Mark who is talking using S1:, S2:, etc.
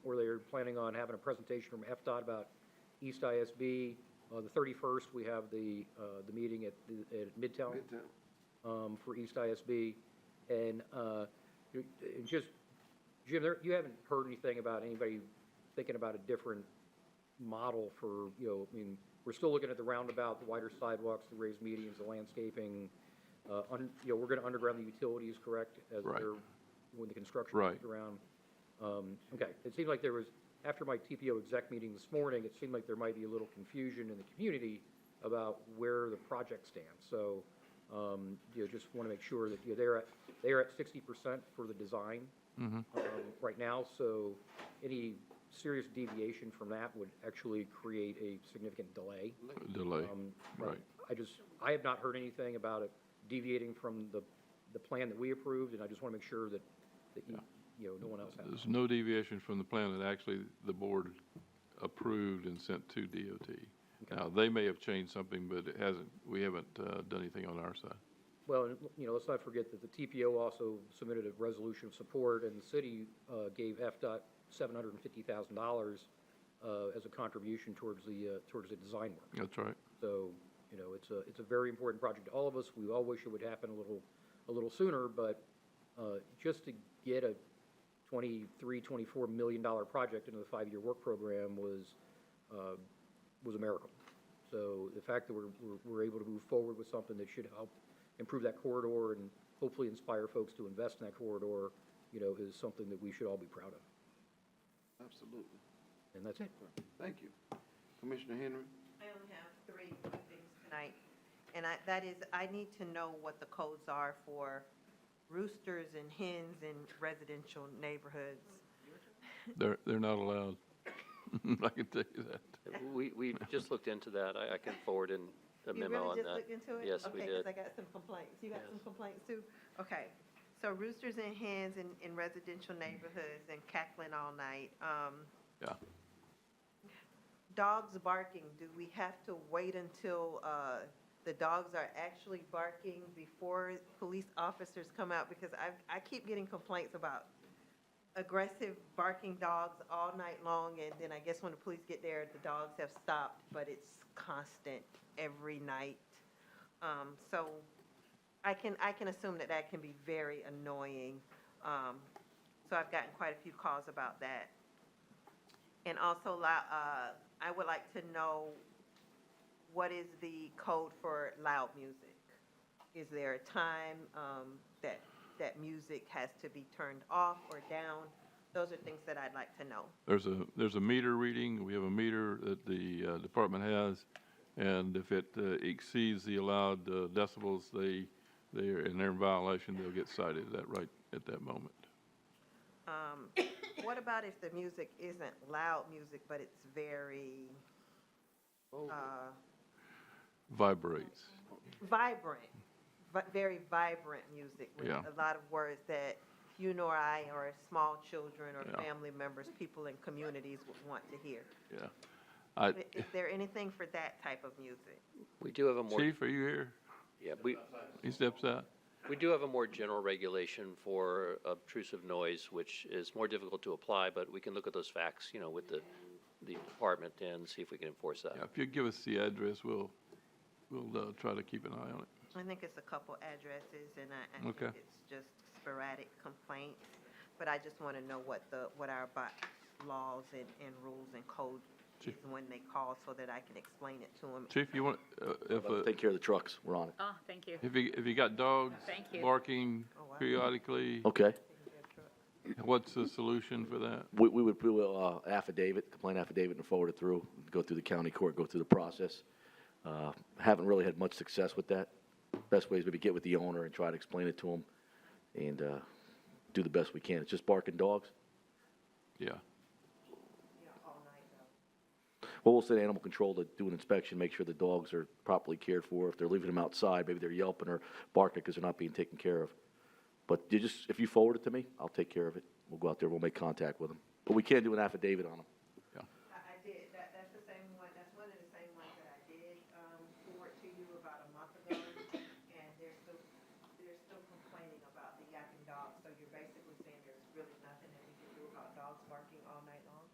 S1: planning on having a presentation from FDOT about East ISB. Uh, the thirty-first, we have the, uh, the meeting at, the- at Midtown
S2: Midtown.
S1: um, for East ISB. And, uh, you- and just, Jim, there, you haven't heard anything about anybody thinking about a different model for, you know, I mean, we're still looking at the roundabout, the wider sidewalks, the raised medians, the landscaping. Uh, un, you know, we're gonna underground the utilities, correct? As
S3: Right.
S1: they're, when the construction
S3: Right.
S1: comes around. Um, okay, it seemed like there was, after my TPO exec meeting this morning, it seemed like there might be a little confusion in the community about where the project stands. So, um, you know, just want to make sure that, you know, they're at, they're at sixty percent for the design um, right now, so any serious deviation from that would actually create a significant delay.
S3: delay,
S1: Um, but
S3: right.
S1: I just, I have not heard anything about it deviating from the, the plan that we approved, and I just want to make sure that, that you, you know, no one else has.
S3: There's no deviation from the plan that actually the board approved and sent to DOT. Now, they may have changed something, but it hasn't, we haven't uh, done anything on our side.
S1: Well, and, you know, let's not forget that the TPO also submitted a resolution of support, and the city uh, gave FDOT seven hundred and fifty thousand dollars uh, as a contribution towards the, uh, towards the design work.
S3: That's right.
S1: So, you know, it's a, it's a very important project to all of us. We all wish it would happen a little, a little sooner, but uh, just to get a twenty-three, twenty-four million dollar project into the five-year work program was, uh, was a miracle. So the fact that we're, we're- we're able to move forward with something that should help improve that corridor and hopefully inspire folks to invest in that corridor, you know, is something that we should all be proud of.
S2: Absolutely.
S1: And that's it.
S2: Thank you. Commissioner Henry?
S4: I only have three quick things tonight, and I, that is, I need to know what the codes are for roosters and hens in residential neighborhoods.
S3: They're, they're not allowed. I can tell you that.
S5: We, we just looked into that. I, I can forward in a
S4: You
S5: memo on
S4: really
S5: that.
S4: just looked into it?
S5: Yes, we
S4: Okay, because
S5: did.
S4: I got some complaints. You got
S5: Yes.
S4: some complaints too? Okay. So roosters and hens in, in residential neighborhoods and cackling all night. Um,
S3: Yeah.
S4: Dogs barking, do we have to wait until, uh, the dogs are actually barking before police officers come out? Because I, I keep getting complaints about aggressive barking dogs all night long, and then I guess when the police get there, the dogs have stopped, but it's constant every night. Um, so I can, I can assume that that can be very annoying. Um, so I've gotten quite a few calls about that. And also, lou- uh, I would like to know what is the code for loud music? Is there a time, um, that, that music has to be turned off or down? Those are things that I'd like to know.
S3: There's a, there's a meter reading. We have a meter that the uh, department has. And if it uh, exceeds the allowed uh, decibels, they, they're, and they're in violation, they'll get cited at that right, at that moment.
S4: Um, what about if the music isn't loud music, but it's very, uh,
S3: Vibrates.
S4: vibrant, vi- very vibrant music with
S3: Yeah.
S4: a lot of words that you nor I or small children or
S3: Yeah.
S4: family members, people in communities would want to hear.
S3: Yeah. I,
S4: I- Is there anything for that type of music?
S5: We do have a more,
S3: Chief, are you here?
S5: yeah, we,
S3: He steps out.
S5: we do have a more general regulation for obtrusive noise, which is more difficult to apply, but we can look at those facts, you know, with the, the department and see if we can enforce that.
S3: Yeah, if you give us the address, we'll, we'll uh, try to keep an eye on it.
S4: I think it's a couple addresses and I, I think
S3: Okay.
S4: it's just sporadic complaints. But I just want to know what the, what our bo- laws and, and rules and codes is when they call so that I can explain it to them.
S3: Chief, you want, uh, if,
S6: Well,
S3: uh,
S6: Take care of the trucks, we're on it.
S7: Oh, thank you.
S3: if you, if you got dogs
S7: Thank you.
S3: barking
S4: Oh, wow.
S3: periodically,
S6: Okay,
S3: what's the solution for that?
S6: we, we would do a uh, affidavit, complaint affidavit and forward it through, go through the county court, go through the process. Uh, Haven't really had much success with that. Best way is maybe get with the owner and try to explain it to him and, uh, do the best we can. It's just barking dogs.
S3: Yeah,
S6: Well, we'll send animal control to do an inspection, make sure the dogs are properly cared for. If they're leaving them outside, maybe they're yelping or barking because they're not being taken care of. But you just, if you forward it to me, I'll take care of it. We'll go out there, we'll make contact with them. But we can't do an affidavit on them.
S4: um,